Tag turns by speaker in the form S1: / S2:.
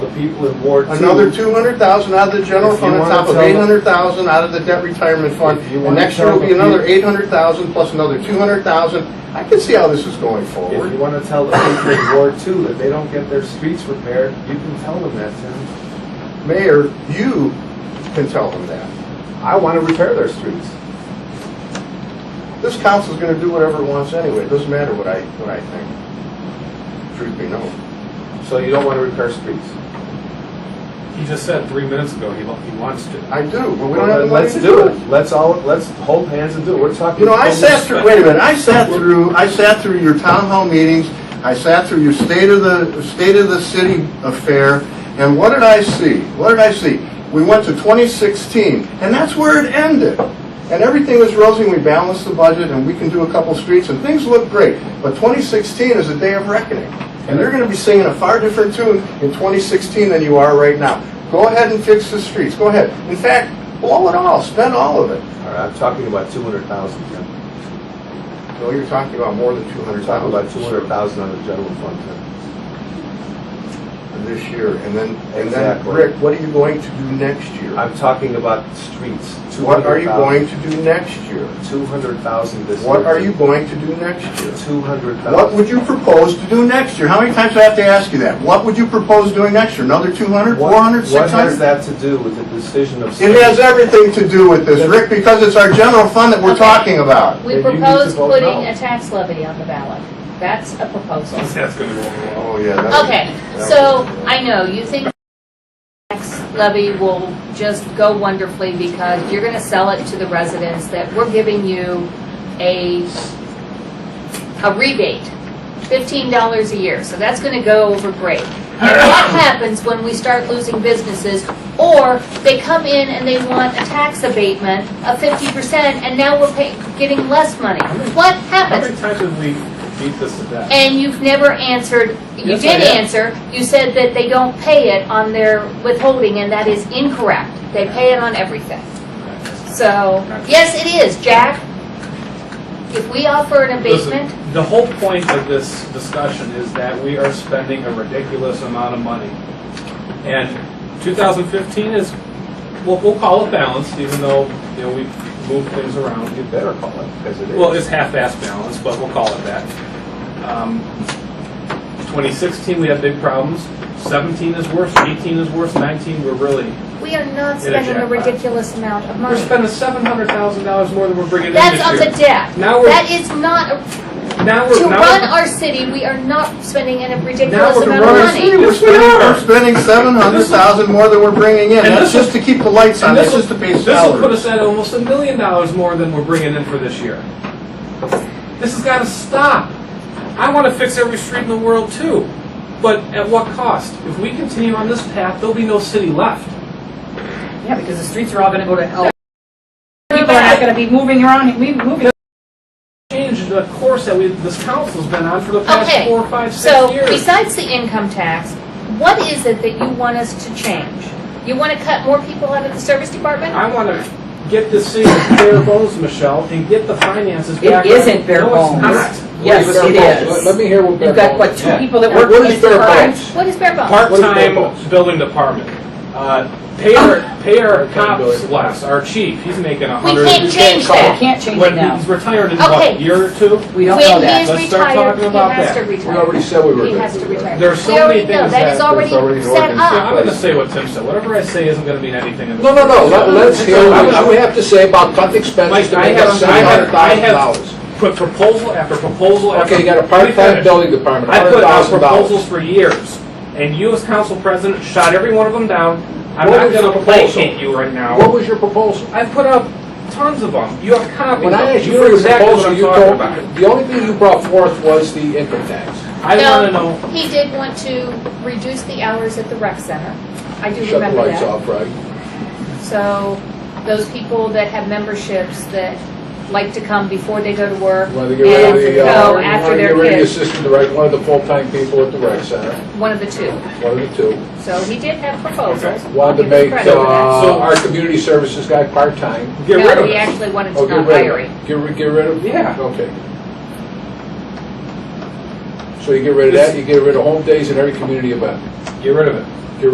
S1: people in Ward Two.
S2: Another two hundred thousand out of the general
S1: If
S2: fund
S1: you
S2: on
S1: wanna
S2: top of
S1: tell them-
S2: eight hundred thousand out of the debt retirement fund.
S1: If you
S2: And
S1: wanna
S2: next year
S1: tell
S2: will be
S1: the peo-
S2: another eight hundred thousand plus another two hundred thousand. I can see how this is going
S1: If you
S2: forward.
S1: want to tell the people in Ward Two that they don't get their streets repaired, you can tell them that, Tim.
S2: Mayor, you can tell them that.
S1: I want to repair their streets.
S2: This council's gonna do whatever it wants anyway. It doesn't matter what I, what I think. Truth be known.
S1: So you don't want to repair streets?
S3: He just said three minutes ago he, he wants to.
S2: I do, but we
S1: Well,
S2: don't have the
S1: then
S2: money
S1: let's
S2: to
S1: do
S2: do
S1: it.
S2: it.
S1: Let's all, let's hold hands and do it. We're talking.
S2: You know, I
S1: homeless-
S2: sat through, wait a minute, I sat through, I sat through your town hall meetings, I sat through your state of the, state of the city affair, and what did I see? What did I see? We went to 2016, and that's where it ended. And everything was rosy, and we balanced the budget, and we can do a couple streets, and things look great. But 2016 is a day of reckoning, and they're gonna be singing a far different tune in 2016 than you are right now. Go ahead and fix the streets, go ahead. In fact, blow it all, spend all of it.
S1: All right, I'm talking about two hundred thousand, Tim.
S2: Well, you're talking about more than two
S1: We're
S2: hundred
S1: talking
S2: thousand.
S1: about two hundred thousand on the general fund, Tim.
S2: This year, and then, and then,
S1: Exactly.
S2: Rick, what are you going to do next year?
S1: I'm talking about streets.
S2: What are you going to do next year?
S1: Two hundred thousand this year.
S2: What are you going to do next year?
S1: Two hundred thousand.
S2: What would you propose to do next year? How many times do I have to ask you that? What would you propose doing next year? Another 200, 400,
S1: What has
S2: 600?
S1: that to do with the decision of?
S2: It has everything to do with this, Rick, because it's our general fund that we're
S4: Okay.
S2: talking about.
S4: We
S1: Then you need to
S4: propose
S1: vote
S4: putting
S1: no.
S4: a tax levy on the ballot. That's a proposal.
S3: That's gonna go over well.
S2: Oh, yeah. that's-
S4: Okay, so I know, you think tax levy will just go wonderfully because you're gonna sell it to the residents that we're giving you a, a rebate, fifteen dollars a year, so that's gonna go over great. And what happens when we start losing businesses, or they come in and they want a tax abatement of fifty percent, and now we're paying, getting less money? What
S3: How
S4: happens?
S3: many times have we beat this to death?
S4: And you've never answered, you
S3: Yes, I
S4: did
S3: have.
S4: answer, you said that they don't pay it on their withholding, and that is incorrect. They pay it on everything. So, yes, it is, Jack. If we offer an abatement,
S3: Listen, The whole point of this discussion is that we are spending a ridiculous amount of money. And 2015 is, we'll, we'll call it balanced, even though, you know, we've moved things around.
S1: You better call it, because it is.
S3: Well, it's half-ass balance, but we'll call it that. Um, 2016, we had big problems. 17 is worse, 18 is worse, 19, we're really,
S4: we are not
S3: Get a
S4: spending a
S3: jackpot.
S4: ridiculous amount of
S3: we're
S4: money.
S3: spending $700,000 more than we're bringing in this year.
S4: That's on the debt.
S3: Now we're-
S4: That is not, a-
S3: Now
S4: to
S3: we're, now
S4: run
S3: we're,
S4: our city, we are not spending a
S3: Now
S4: ridiculous
S3: we're
S4: amount of
S3: running-
S4: money.
S2: We're spending, we're spending 700,000 more than we're bringing in.
S3: And
S2: That's
S3: this will-
S2: just to keep the lights on,
S3: and
S2: that's
S3: this will,
S2: just to pay
S3: this will put
S2: salaries.
S3: us at almost a million dollars more than we're bringing in for this year. This has gotta stop. I wanna fix every street in the world too, but at what cost? If we continue on this path, there'll be no city left.
S5: Yeah, because the streets are all gonna go to L. People are not gonna be moving around, we- moving.
S3: change the course that we, this council's been on for the past
S4: Okay,
S3: four, five, six
S4: So
S3: years.
S4: besides the income tax, what is it that you want us to change? You want to cut more people out of the service department?
S3: I want to get this city to bare bones, Michelle, and get the finances
S5: It
S3: back.
S5: isn't bare bones.
S3: No, it's not.
S5: Yes,
S6: Well,
S5: it
S6: let-
S5: is.
S6: Let me hear what.
S5: You've got, what, two
S6: Yeah.
S5: people that
S6: Now,
S5: work
S6: what
S5: in
S6: is
S5: the
S6: bare
S5: department?
S6: bones?
S4: What is bare bones?
S3: Part-time building department. Uh, Pay our, pay our cops less, our chief, he's making a
S4: We
S3: hundred.
S4: can't change that.
S5: Can't change it
S3: When
S5: now.
S3: he's retired in what,
S4: Okay.
S3: a year or two?
S5: We don't know
S4: When he
S5: that.
S4: is
S3: Let's start
S4: retired,
S3: talking
S4: he
S3: about
S4: has to
S3: that.
S4: retire.
S6: We already said we were
S4: He
S6: gonna
S4: has
S6: do
S4: to
S6: that.
S4: retire.
S3: There's so
S4: We already
S3: many
S4: know,
S3: things
S4: that
S3: that-
S4: is
S3: there's
S2: already
S4: already
S2: an
S4: set
S2: ordinance in
S3: Yeah, I'm
S4: up.
S3: going to say what Tim said, whatever I say isn't going to mean anything. to this
S6: No, no, no, let,
S3: council.
S6: let's hear what we have to say about cutting expenses
S3: Mike,
S6: to
S3: I
S6: make us
S3: have, I
S6: seven
S3: have,
S6: hundred
S3: I
S6: thousand
S3: have
S6: dollars.
S3: put proposal after proposal after.
S6: Okay, you got a
S3: Let me
S6: part-time
S3: finish.
S6: building department,
S3: I
S6: hundred
S3: put out
S6: thousand dollars.
S3: proposals for years, and you as council president shot every one of them down. I'm
S6: What
S3: not
S6: was your
S3: gonna
S6: proposal?
S3: placate you right now.
S6: What was your proposal?
S3: I've put out tons of them. You have copies of
S6: When I
S3: them.
S6: asked you
S3: You
S6: for
S3: know
S6: your
S3: exactly what
S6: proposal,
S3: I'm
S6: you
S3: talking
S6: told,
S3: about.
S6: the only thing you brought forth was the income tax.
S3: I wanna know,
S4: No, he did want to reduce the hours at the rec center. I do
S6: Shut the
S4: remember
S6: lights
S4: that.
S6: off, right?
S4: So those people that have memberships that like to come before they go to work
S6: You
S4: and
S6: wanted to get rid of the, uh,
S4: go
S6: you
S4: after
S6: wanted to
S4: their
S6: get rid of the
S4: kids,
S6: assistant director, one of the full-time people at the rec center,
S4: one of the two.
S6: one of the two.
S4: So he did have proposals. I'll
S6: Wanted to
S4: give him
S6: make,
S4: credit for that.
S6: uh, our community services guy part-time.
S3: get rid
S4: No,
S3: of
S4: he
S3: it.
S4: actually wanted
S6: Oh,
S4: to
S6: get
S4: not
S6: rid
S4: hire
S6: of
S4: him.
S6: it. Get rid, get rid of?
S3: Yeah.
S6: Okay. So you get rid of that, you get rid of home days and every community event.
S3: Get rid of it.